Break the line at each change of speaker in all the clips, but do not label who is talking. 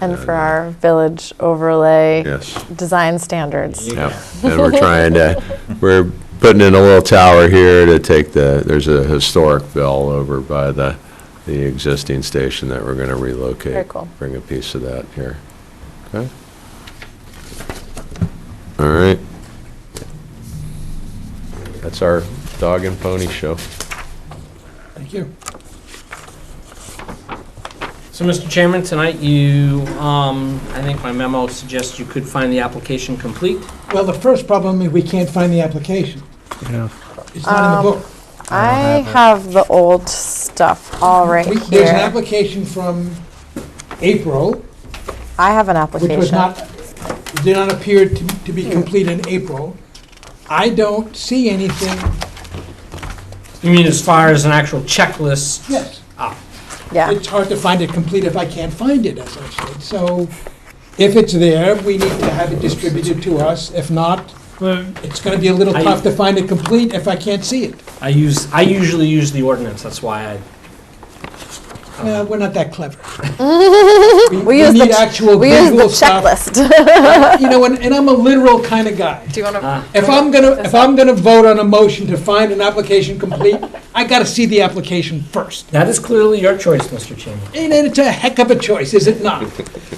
and for our village overlay
Yes.
design standards.
Yeah, and we're trying to, we're putting in a little tower here to take the, there's a historic bell over by the, the existing station that we're going to relocate.
Very cool.
Bring a piece of that here. Okay? All right. That's our dog and pony show.
Thank you. So, Mr. Chairman, tonight you, um, I think my memo suggests you could find the application complete.
Well, the first problem is we can't find the application. It's not in the book.
I have the old stuff all right
We- There's an
here.
application from April,
I have an
which was
application.
not, did not appear to to be complete in April. I don't see anything,
You mean as far as an actual checklist?
yes,
Yeah,
it's hard to find it complete if I can't find it, as I said. So if it's there, we need to have it distributed to us. If not,
Well,
it's going to be a little
I- Uh-huh.
tough to find it complete if I can't see it.
I use, I usually use the ordinance, that's why I.
Well, we're not that clever.
We use the
need
ch-
actual
we use the
Google stuff.
checklist.
You know, and, and I'm a literal kind of guy.
Do you want to?
Ah.
If I'm gonna, if I'm gonna vote on a motion to find an application complete, I gotta see the application first.
That is clearly your choice, Mr. Chairman.
And it's a heck of a choice, is it not?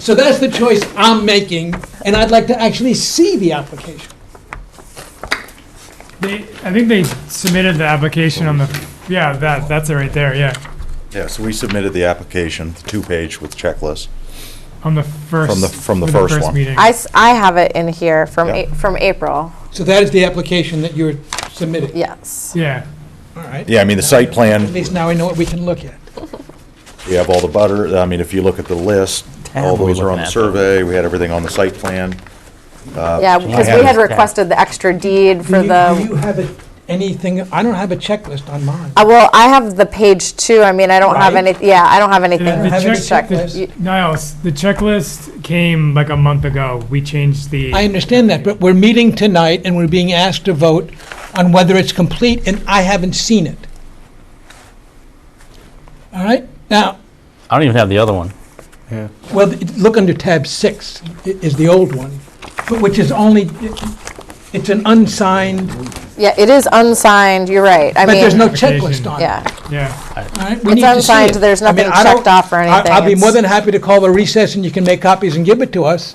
So that's the choice I'm making, and I'd like to actually see the application.
They, I think they submitted the application on the, yeah, that, that's it right there, yeah.
Yes, we submitted the application, the two-page with checklist.
On the first.
the- from the
with
first one.
meeting.
I, s- I have it in here from,
Yeah.
A- from April,
So that is the application that you're submitting,
yes.
Yeah,
all right?
Yeah, I mean, the site
At
plan,
least now I know what we can look at.
we have all the butter, I mean, if you look at the list, all
Tab we
those are on
looking
the
at,
survey, we had everything on the site plan.
Yeah, because
Uh, have
we had
it.
requested the extra deed
Do
for
you- Do you
the,
have a- anything, I don't have a checklist on mine.
Uh, well, I have the page two, I mean, I don't have
Right.
any, yeah, I don't have anything
the
have any
check-
checked.
checklist.
You-
Niles, the checklist came like a month ago. We changed the.
I understand that, but we're meeting tonight and we're being asked to vote on whether it's complete, and I haven't seen it. All right? Now,
I don't even have the other one.
well, th- look under tab six, i- is the old one, but which is only, it's an unsigned,
Yeah, it is unsigned, you're right, I
but there's
mean,
no checklist on it.
yeah.
Yeah,
all right? We
It's
need to see
unsigned,
it.
there's
I mean,
nothing
I don't-
checked off or
I-
anything.
I'll be more
it's-
than happy to call a recess and you can make copies and give it to us,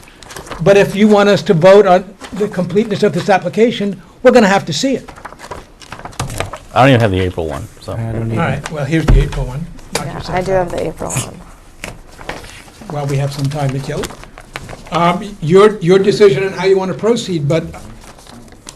but if you want us to vote on the completeness of this application, we're going to have to see it.
I don't even have the April one, so.
All right, well, here's the April one. Knock
yeah,
yourself
I do
out.
have the April one.
While we have some time to kill. Um, Your, your decision on how you want to proceed, but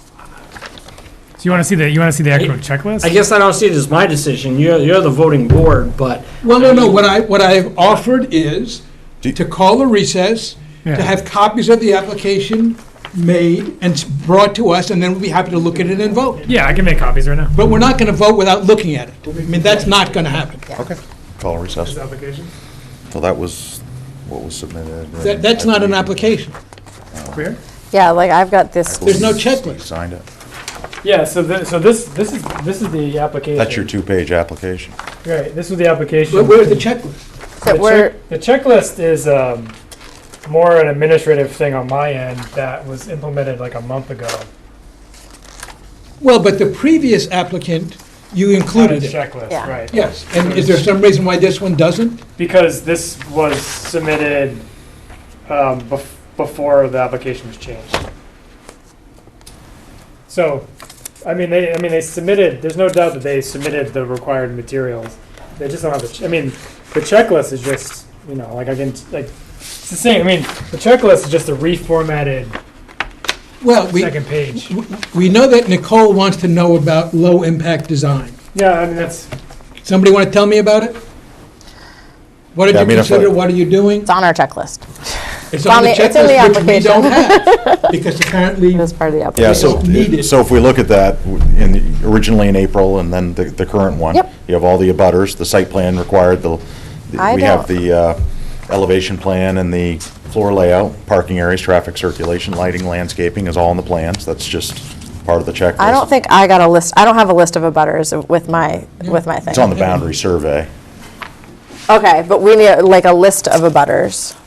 so you wanna see the, you wanna see the actual checklist?
I guess I don't see it as my decision, you're, you're the voting board, but.
Well, no, no, what I, what I've offered is
Do-
to call a recess, to
Yeah.
have copies of the application made and s- brought to us, and then we'll be happy to look at it and vote.
Yeah, I can make copies right now.
But we're not going to vote without looking at it. I mean, that's not going to happen.
Okay. Call and recess.
Application,
So that was what was submitted.
That, that's not an application.
clear?
Yeah, like, I've got this,
There's no
You
checklist.
signed it.
Yeah, so this, so this, this is, this is the application.
That's your two-page application.
Right, this was the application.
Where- Where's the checklist?
that
The
we're,
check- The checklist is um, more an administrative thing on my end that was implemented like a month ago.
Well, but the previous applicant, you
Not a
included it.
Checklist,
Yeah.
right.
Yes, and is there some reason why this one doesn't?
Because this was submitted um, bef- before the application was changed. So, I mean, they, I mean, they submitted, there's no doubt that they submitted the required materials. They just don't have the, ch- I mean, the checklist is just, you know, like I can, like, it's the same, I mean, the checklist is just a reformatted
Well, we,
second page.
we know that Nicole wants to know about low-impact design.
Yeah, I mean, that's,
Somebody want to tell me about it? What did
Yeah, I
you
mean, if I-
consider, what are you doing?
it's on our checklist,
It's
on the- it's in the
checklist, which we don't have, because apparently,
it is part of the application.
Yeah, so,
It's needed.
so if we look at that, w- in, the- originally in April and then the, the current one.
Yep.
You have all the abutters, the site plan required, the,
I
the- we
don't-
have the uh, elevation plan and the floor layout, parking areas, traffic circulation, lighting, landscaping is all in the plans. That's just part of the checklist.
I don't think I got a list, I don't have a list of abutters with my, with my thing.
It's on the boundary survey.
Okay, but we need like a list of abutters.